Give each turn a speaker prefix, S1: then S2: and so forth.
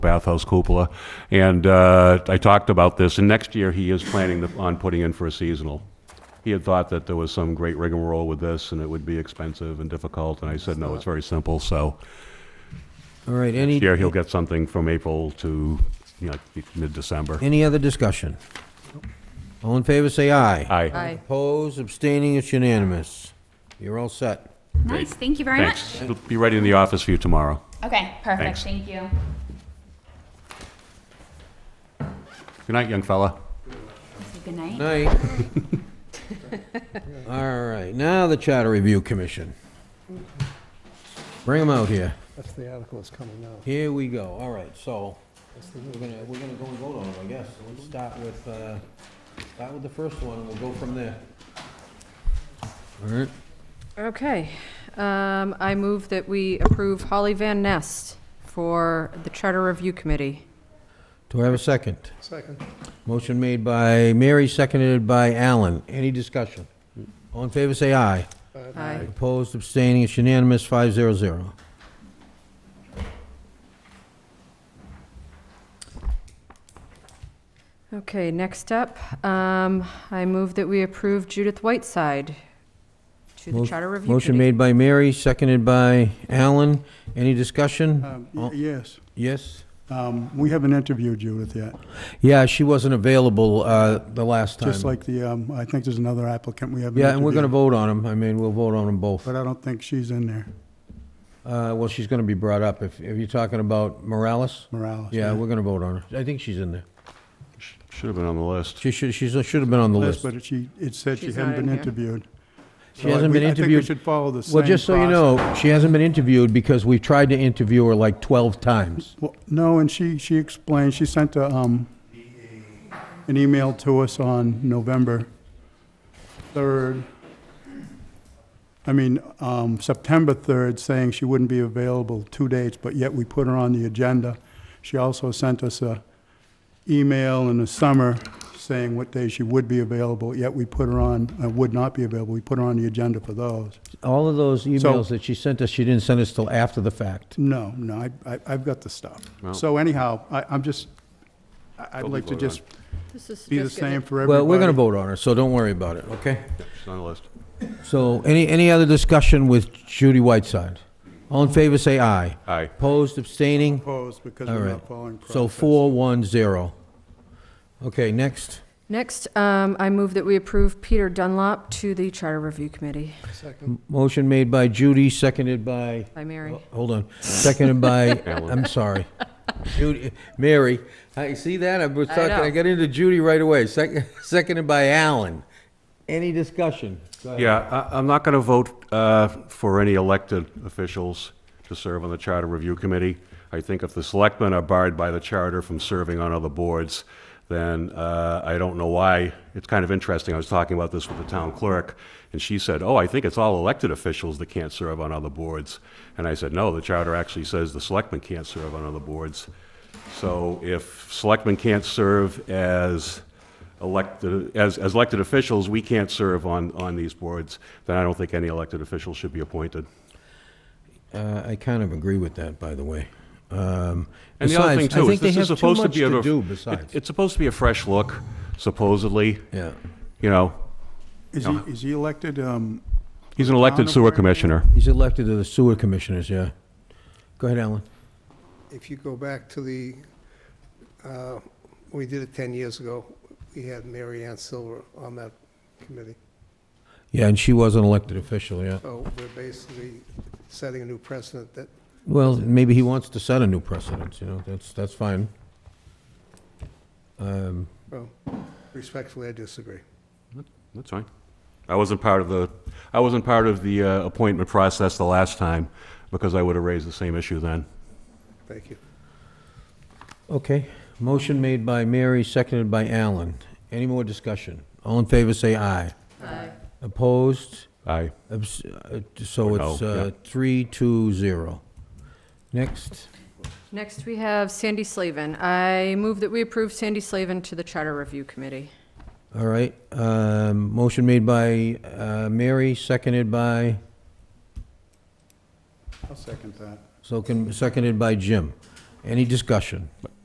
S1: bathhouse cupola. And uh, I talked about this, and next year he is planning to- on putting in for a seasonal. He had thought that there was some great rigmarole with this, and it would be expensive and difficult, and I said, no, it's very simple, so.
S2: All right, any,
S1: Here, he'll get something from April to, you know, mid-December.
S2: any other discussion? All in favor, say aye.
S1: Aye.
S2: Opposed, abstaining, it's unanimous. You're all set.
S3: Nice, thank you very much.
S1: Thanks. It'll Be ready in the office for you tomorrow.
S3: Okay, perfect,
S1: Thanks.
S3: thank you.
S1: Good night, young fella.
S3: Good night.
S2: Night. All right, now the Charter Review Commission. Bring them out here.
S4: That's the article that's coming out.
S2: Here we go, all right, so, we're gonna, we're gonna go and vote on them, I guess. So Let's start with, uh, start with the first one, and we'll go from there. All right,
S5: Okay, um, I move that we approve Holly Van Nest for the Charter Review Committee.
S2: do I have a second?
S4: Second.
S2: Motion made by Mary, seconded by Allen. Any discussion? All in favor, say aye.
S5: Aye.
S2: Opposed, abstaining, it's unanimous, five zero zero.
S5: Okay, next up, um, I move that we approve Judith Whiteside to the
S2: Mo-
S5: Charter Review Committee.
S2: Motion made by Mary, seconded by Allen. Any discussion?
S4: Um, y-
S2: Oh,
S4: Yes,
S2: Yes?
S4: Um, we haven't interviewed Judith yet,
S2: Yeah, she wasn't available uh, the last time.
S4: just like the, um, I think there's another applicant we haven't interviewed.
S2: Yeah, and we're going to vote on them. I mean, we'll vote on them both. Uh,
S4: But I don't think she's in there,
S2: Well, she's going to be brought up. If if you're talking about Morales?
S4: Morales.
S2: Yeah, we're going to vote on her. I think she's in there.
S1: Sh- Should have been on the list.
S2: She should, she should have been on the list.
S4: Yes, But she, it said she
S5: She's
S4: hadn't
S5: not in
S4: been
S5: here.
S4: interviewed.
S2: She
S4: So I-
S2: hasn't
S4: we-
S2: been
S4: I think we
S2: interviewed.
S4: should follow the same
S2: Well, just so you
S4: process.
S2: know, she hasn't been interviewed because we've tried to interview her like 12 times.
S4: Well, no, and she, she explained, she sent a, um, an email to us on November third. I mean, um, September third, saying she wouldn't be available two dates, but yet we put her on the agenda. She also sent us a email in the summer saying what days she would be available, yet we put her on, uh, would not be available, we put her on the agenda for those.
S2: All of those emails
S4: So-
S2: that she sent us, she didn't send us till after the fact.
S4: No, no, I, I, I've got the stuff.
S1: No.
S4: So anyhow, I, I'm just, I- I'd
S1: Totally
S4: like to
S1: voted on.
S4: just
S5: This is
S4: be the
S5: just gonna-
S4: same for everybody.
S2: Well, we're going to vote on her, so don't worry about it, okay?
S1: Yeah, She's on the list.
S2: So any, any other discussion with Judy Whiteside? All in favor, say aye.
S1: Aye.
S2: Opposed, abstaining?
S4: Opposed because
S2: All
S4: we're
S2: right.
S4: not following process.
S2: So four, one, zero. Okay, next.
S5: Next, um, I move that we approve Peter Dunlop to the Charter Review Committee.
S2: Motion made by Judy, seconded by,
S5: By Mary.
S2: hold on, seconded by,
S1: Alan.
S2: I'm sorry. Judy, Mary, I see that? I was
S5: I
S2: talking,
S5: know.
S2: I got into Judy right away, Sec- seconded by Alan. Any discussion? Go ahead.
S1: Yeah, I- I'm not going to vote uh, for any elected officials to serve on the Charter Review Committee. I think if the selectmen are barred by the charter from serving on other boards, then uh, I don't know why. It's kind of interesting, I was talking about this with the town clerk, and she said, "Oh, I think it's all elected officials that can't serve on other boards." And I said, "No, the charter actually says the selectmen can't serve on other boards." So if selectmen can't serve as elected, as, as elected officials, we can't serve on, on these boards, then I don't think any elected official should be appointed.
S2: Uh, I kind of agree with that, by the way. Um,
S1: And the other thing
S2: besides, I
S1: too is
S2: think they
S1: this is
S2: have too
S1: supposed to
S2: much
S1: be a-
S2: to do
S1: it-
S2: besides.
S1: It's supposed to be a fresh look, supposedly,
S2: Yeah.
S1: you know.
S4: Is he, is he elected? um,
S1: He's an elected
S4: Town
S1: sewer
S4: of-
S1: commissioner.
S2: He's elected to the sewer commissioners, yeah. Go ahead, Alan.
S6: if you go back to the, uh, we did it 10 years ago, we had Mary Ann Silver on that committee.
S2: Yeah, and she was an elected official, yeah.
S6: So we're basically setting a new precedent that
S2: Well, maybe he wants to set a new precedent, you know, that's, that's fine. Um,
S6: respectfully I disagree.
S1: That's fine. I wasn't part of the, I wasn't part of the uh, appointment process the last time, because I would have raised the same issue then.
S6: Thank you.
S2: Okay, motion made by Mary, seconded by Alan. Any more discussion? All in favor, say aye.
S5: Aye.
S2: Opposed?
S1: Aye.
S2: Abs- uh, So
S1: Or no,
S2: it's uh,
S1: yeah.
S2: three, two, zero. Next,
S5: Next, we have Sandy Slavin. I move that we approve Sandy Slavin to the Charter Review Committee.
S2: all right, um, motion made by uh, Mary, seconded by,
S4: I'll second that.
S2: so can, seconded by Jim. Any discussion?